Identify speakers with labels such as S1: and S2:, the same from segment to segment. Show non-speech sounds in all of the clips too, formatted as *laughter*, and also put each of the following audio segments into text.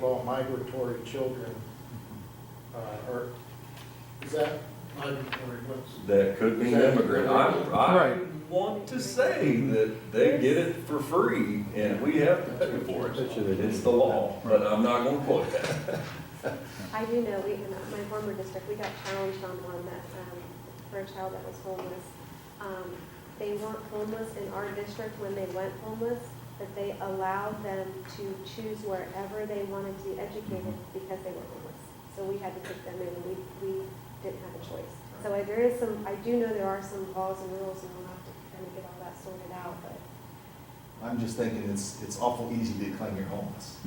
S1: well, migratory children, uh, or, is that migratory, what's?
S2: That could mean immigrant. I, I
S3: Right.
S2: want to say that they get it for free and we have to pay for it.
S4: Bet you they didn't.
S2: It's the law, but I'm not gonna quote that.
S5: I do know, we, in my former district, we got challenged on one that, um, for a child that was homeless. Um, they weren't homeless in our district when they went homeless, but they allowed them to choose wherever they wanted to be educated because they were homeless. So we had to take them in, and we, we didn't have a choice. So I- there is some, I do know there are some laws and rules, and we'll have to kind of get all that sorted out, but
S6: I'm just thinking it's, it's awful easy to claim you're homeless,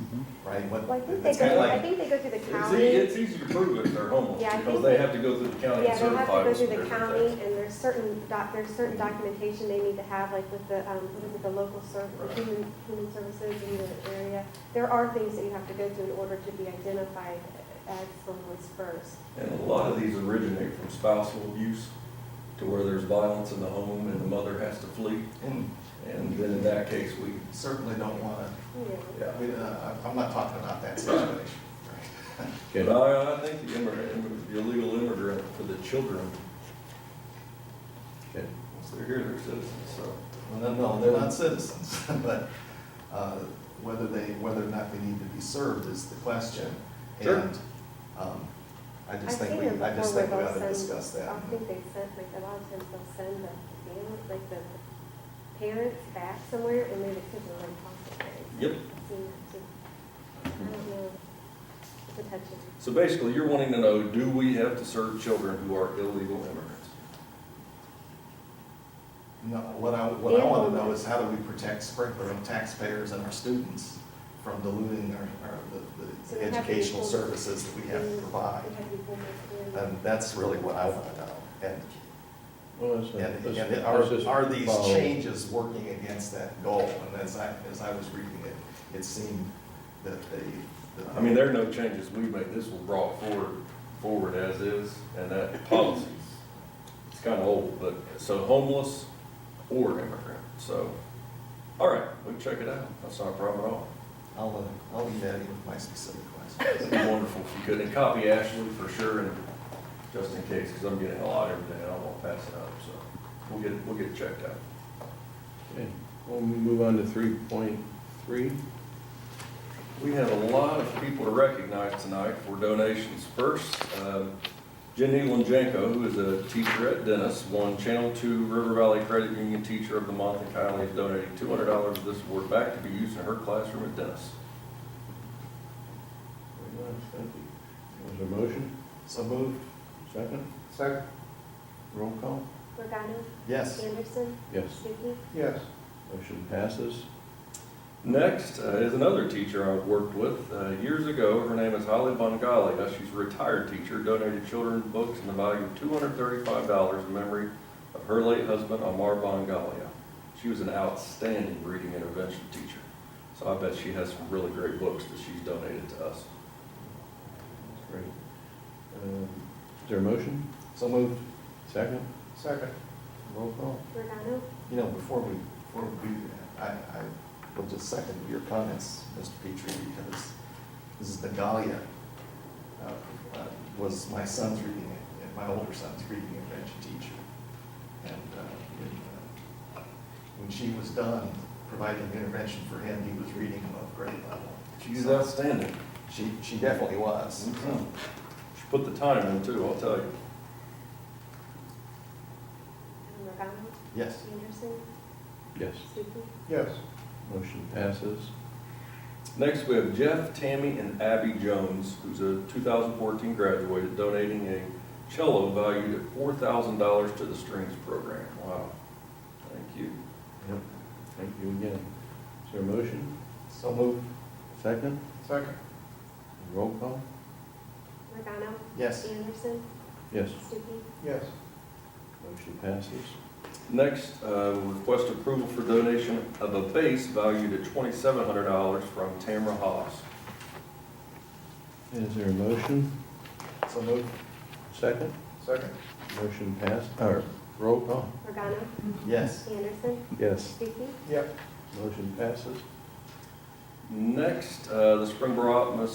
S6: right? What-
S5: well, I think they
S6: it's kinda
S5: go, I
S6: like-
S5: think they go through the
S2: It's,
S5: county.
S2: e- it's easy to prove if they're homeless
S5: Yeah, I
S2: because
S5: think-
S2: they have to go through the county
S5: Yeah,
S2: and
S5: they have to
S2: certify
S5: go
S2: us.
S5: through
S2: and
S5: the county,
S2: everything.
S5: and there's certain doc, there's certain documentation they need to have, like with the, um, what is it, the local serv, the
S2: Right.
S5: human, human services in the area. There are things that you have to go through in order to be identified as homeless first.
S2: And a lot of these originate from spousal abuse to where there's violence in the home and the mother has to flee.
S6: And
S2: And then in that case, we,
S6: hmm, certainly don't want
S5: Yeah.
S2: yeah.
S6: to, we, uh, I'm not talking about *laughs* that situation.
S4: Okay.
S2: But Oh, I, I think the immigrant, the illegal immigrant for the children,
S4: Okay.
S2: once they're here, they're citizens, so.
S6: Well, no, no, they're not citizens, *laughs* but, uh, whether they, whether or not they need to be served is the question.
S2: Sure.
S6: And, um, I
S5: I've
S6: just think
S5: seen
S6: we,
S5: them
S6: I just
S5: before
S6: think we
S5: where
S6: ought to
S5: they'll send-
S6: discuss that.
S5: I think they sent, like, a lot of times they'll send the family, like, the parents back somewhere, and then the kids are like, foster parents.
S2: Yep.
S5: I've seen that too. I don't know, it's a touchy.
S2: So basically, you're wanting to know, do we have to serve children who are illegal immigrants?
S6: No, what I, what I
S5: And
S6: want to know
S5: homeless.
S6: is how do we protect Sprinkler and taxpayers and our students from diluting our, our, the-
S5: So
S6: the
S5: we have to be
S6: educational
S5: homeless.
S6: services that we have to provide? Um,
S5: We have to be homeless, yeah.
S6: And that's really what I want to know. And,
S4: Well, that's,
S6: and,
S4: that's-
S6: and
S4: that's just
S6: are, are these
S4: follow-
S6: changes working against that goal? And as I, as I was reading it, it seemed that they. that-
S2: I mean, there are no changes we made, this was brought forward, forward as is, and that policy's, it's kind of old, but, so homeless or immigrant, so, all right, we can check it out, that's not a problem at all.
S6: I'll, uh, I'll leave that in with my specific questions.
S2: It'd be wonderful if you could, and copy Ashley for sure, and just in case, because I'm getting a lot every day, and I won't pass it up, so we'll get, we'll get it checked out.
S4: Okay. We'll move on to three point three.
S2: We have a lot of people to recognize tonight for donations. First, um, Jenny Lenjenko, who is a teacher at Dennis, won Channel Two River Valley Credit Union Teacher of the Month and kindly has donated two hundred dollars of this award back to be used in her classroom at Dennis.
S4: Very nice, thank you. There's a motion,
S6: So moved,
S4: second,
S3: Second,
S4: roll call?
S5: Regano,
S6: yes.
S5: Anderson,
S4: Yes.
S5: Stuckey,
S3: yes.
S4: Motion passes.
S2: Next uh, is another teacher I've worked with uh, years ago. Her name is Holly Bongalia. She's a retired teacher, donated children books in the value of $235 in memory of her late husband, Amar Bongalia. She was an outstanding reading intervention teacher. So I bet she has some really great books that she's donated to us.
S4: That's great. Um, Is there a motion,
S6: So moved.
S4: second,
S3: Second,
S4: roll call?
S5: Regano,
S6: You know, before we, before we do that, I, I will just second your comments, Mr. Petrie, because Mrs. Nagalia uh, uh, was my son's reading, and my older son's reading intervention teacher. And uh, when, uh, when she was done providing intervention for him, he was reading above grade level.
S2: She's outstanding.
S6: She, she definitely was.
S2: She Mm-hmm. put the time in too, I'll tell you.
S5: um, Regano,
S6: Yes.
S5: Anderson,
S4: Yes.
S5: Stuckey,
S3: yes.
S4: Motion passes.
S2: Next, we have Jeff, Tammy, and Abby Jones, who's a 2014 graduate, donating a cello valued at $4,000 to the Strings Program. Wow. Thank you.
S4: Yep. Thank you again. Is there a motion,
S6: So moved.
S4: second,
S3: Second,
S4: roll call?
S5: Regano,
S6: Yes.
S5: Anderson,
S4: Yes.
S5: Stuckey,
S3: yes.
S4: Motion passes.
S2: Next, uh, request approval for donation of a bass valued at $2,700 from Tamra Haas.
S4: Is there a motion,
S6: So moved.
S4: second,
S3: Second,
S4: motion passed, or roll call?
S5: Regano,
S6: Yes.
S5: Anderson,
S4: Yes.
S5: Stuckey,
S3: yep.
S4: Motion passes.
S2: Next, uh, the Springboro Optimus